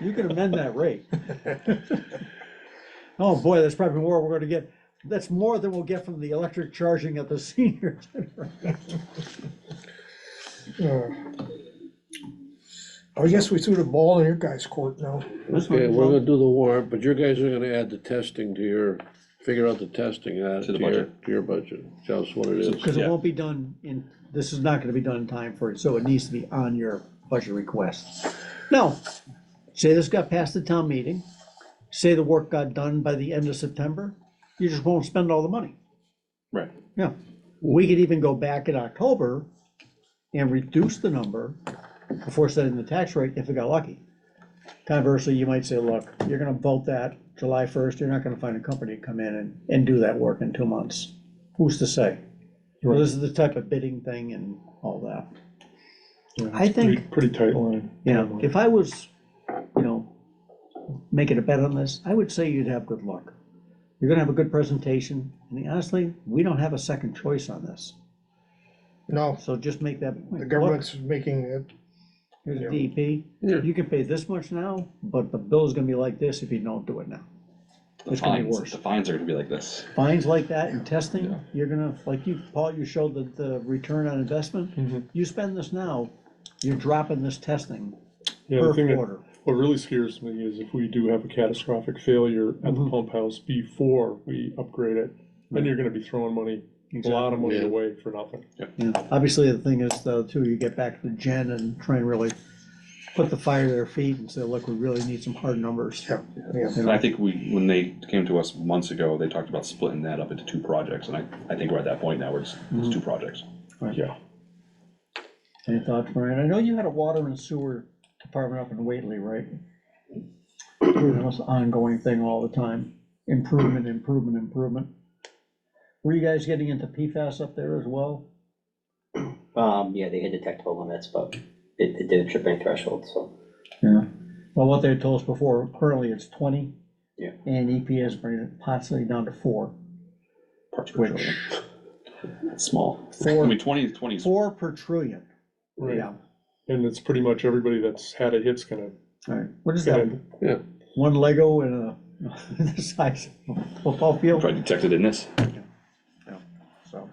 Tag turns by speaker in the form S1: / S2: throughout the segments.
S1: You could amend that rate. Oh, boy, that's probably more we're gonna get, that's more than we'll get from the electric charging at the senior center.
S2: I guess we threw the ball in your guys' court now.
S3: Okay, we're gonna do the warrant, but your guys are gonna add the testing to your, figure out the testing, add it
S4: To
S3: to
S4: the
S3: your,
S4: budget.
S3: to your budget. Tell us what it is.
S1: Because it
S4: Yeah.
S1: won't be done in, this is not gonna be done in time for it, so it needs to be on your budget request. Now, say this got past the town meeting, say the work got done by the end of September, you just won't spend all the money.
S4: Right.
S1: Yeah, we could even go back in October and reduce the number before setting the tax rate if we got lucky. Conversely, you might say, look, you're gonna vote that July first, you're not gonna find a company to come in and, and do that work in two months. Who's to say? Well, this is the type of bidding thing and all that. I
S5: It's pretty-
S1: think-
S5: Pretty tight line.
S1: You know, if I was, you know, making a bet on this, I would say you'd have good luck. You're gonna have a good presentation, and honestly, we don't have a second choice on this.
S2: No,
S1: So just make that point.
S2: the
S1: Look,
S2: government's making it,
S1: Here's DEP,
S3: Yeah.
S1: E you can pay this much now, but the bill's gonna be like this if you don't do it now.
S4: The
S1: It's gonna be
S4: fines,
S1: worse.
S4: the fines are gonna be like this.
S1: Fines like that and testing,
S4: Yeah.
S1: you're gonna, like you, Paul, you showed the, the return on investment. You spend this now, you're dropping this testing
S5: Yeah,
S1: per
S5: the thing that,
S1: quarter.
S5: what really scares me is if we do have a catastrophic failure at the
S1: Mhm.
S5: pump house before we upgrade it, then you're gonna be throwing money, a lot of money
S3: Yeah.
S5: away for nothing.
S1: Yeah, obviously, the thing is, though, too, you get back to Jen and try and really put the fire to their feet and say, look, we really need some hard numbers.
S2: Yeah. yeah,
S4: And I think we, when they came to us months ago, they talked about splitting that up into two projects, and I, I think we're at that point now where it's, it's two projects.
S5: Yeah.
S1: Any thoughts, Brian? I know you had a water and sewer department up in Whately, right? That was an ongoing thing all the time, improvement, improvement, improvement. Were you guys getting into PFAS up there as well?
S6: Um, yeah, they hit detectable limits, but it, it didn't trip any threshold, so.
S1: Yeah. Well, what they told us before, currently it's twenty.
S6: Yeah.
S1: And EPA is bringing it possibly down to four.
S4: Parts per
S1: Which-
S4: trillion. It's small. I
S1: Four,
S4: mean, twenty, twenty is
S1: four per trillion.
S5: Right, and it's pretty much everybody that's had a hit's gonna
S1: All right, what is
S5: get
S1: that,
S5: in.
S1: one Lego and a, the size of a football field?
S4: probably detected in this.
S1: So,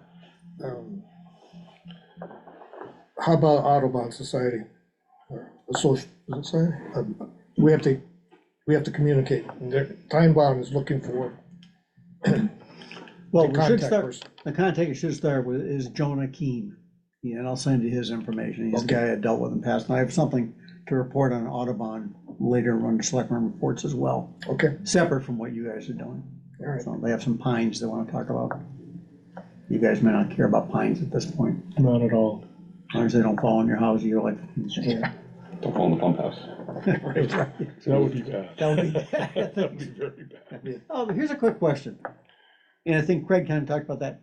S2: um, How about Audubon Society? Or Associ- is it society? Um, We have to, we have to communicate. And their- Time Bomb is looking for
S1: well,
S2: a
S1: Oh, we should
S2: contact
S1: start,
S2: person.
S1: the contact you should start with is Jonah Keen. Yeah, and I'll send you his information. He's a
S2: Okay.
S1: guy I dealt with in the past, and I have something to report on Audubon later on selectmen reports as well,
S2: Okay,
S1: separate from what you guys are doing.
S2: all right.
S1: So They have some pines they wanna talk about. You guys may not care about pines at this point,
S5: Not at all.
S1: as long as they don't fall on your house, you're like. yeah,
S4: Don't call them the pump house.
S1: right, right.
S5: That would be bad.
S1: That would be-
S5: That would be very bad.
S1: Oh, here's a quick question, and I think Craig kind of talked about that.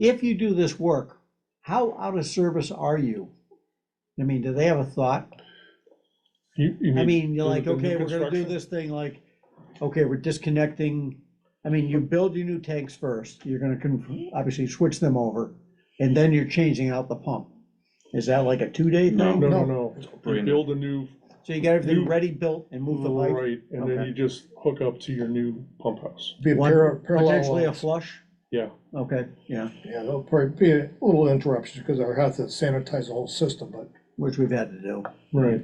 S1: If you do this work, how out of service are you? I mean, do they have a thought?
S5: You, you
S1: I
S5: mean,
S1: mean, you're
S5: the-
S1: like,
S5: the new
S1: okay, we're gonna do
S5: construction?
S1: this thing like, okay, we're disconnecting. I mean, you build your new tanks first, you're gonna con- obviously switch them over, and then you're changing out the pump. Is that like a two-day
S4: No.
S1: thing?
S5: no, no, no, you
S4: Brand new.
S5: build a new,
S1: So you got everything
S5: You-
S1: ready, built, and move the pipe,
S5: right, and then
S1: Okay.
S5: you just hook up to your new pump house.
S2: Be a
S1: One-
S2: para- parallel
S1: potentially a
S2: lines.
S1: flush?
S5: Yeah,
S1: Okay, yeah,
S2: Yeah, there'll probably be a little interruption because I'll have to sanitize the whole system, but
S1: which we've had to do.
S5: right.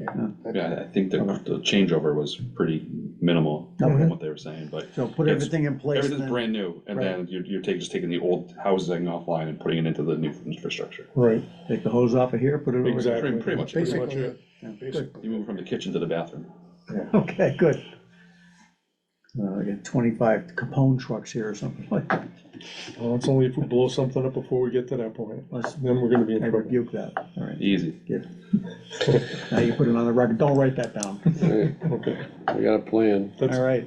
S4: Yeah, I think the, the changeover was pretty minimal
S1: Okay.
S4: from what they were saying, but
S1: So put
S4: It's-
S1: everything in place. and
S4: everything's
S1: then-
S4: brand new, and
S1: Right.
S4: then you're, you're taking, just taking the old housing offline and putting it into the new infrastructure.
S5: Right,
S1: Take the hose off of here, put it over.
S5: exactly.
S4: Pretty, pretty much.
S5: Pretty much
S2: basically,
S5: it.
S1: Yeah, good.
S4: You
S2: basically.
S4: move from the kitchen to the bathroom.
S1: Okay, good. Uh, I got twenty-five Capone trucks here or something like that.
S5: Well, it's only if we blow something up before we get to that point,
S1: Let's,
S5: then we're gonna be in
S1: I
S5: trouble.
S1: rebuke that. All right,
S4: Easy.
S1: now you put it on the record. Don't write that down.
S3: Okay,
S5: Okay,
S3: I got a plan.
S1: All
S5: that's,
S1: right.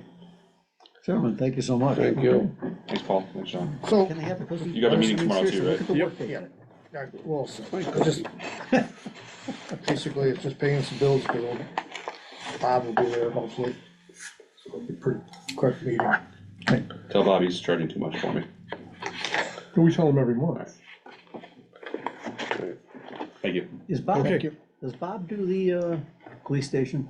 S1: Gentlemen, thank you so much.
S3: Thank you.
S4: Thanks, Paul. Thanks, John.
S2: So,
S1: Can they have the cookie?
S4: You got a meeting tomorrow too,
S1: Seriously, look at the
S5: right?
S1: work they
S2: yeah,
S1: did.
S2: yeah, well, so, I just, basically, it's just paying some bills, but um, Bob will be there hopefully. So it'll be pretty quick meeting.
S4: Tell Bobby he's charging too much for me.
S5: we tell them every month.
S4: Thank you.
S1: Is Bob,
S2: Thank you.
S1: does Bob do the, uh, police station?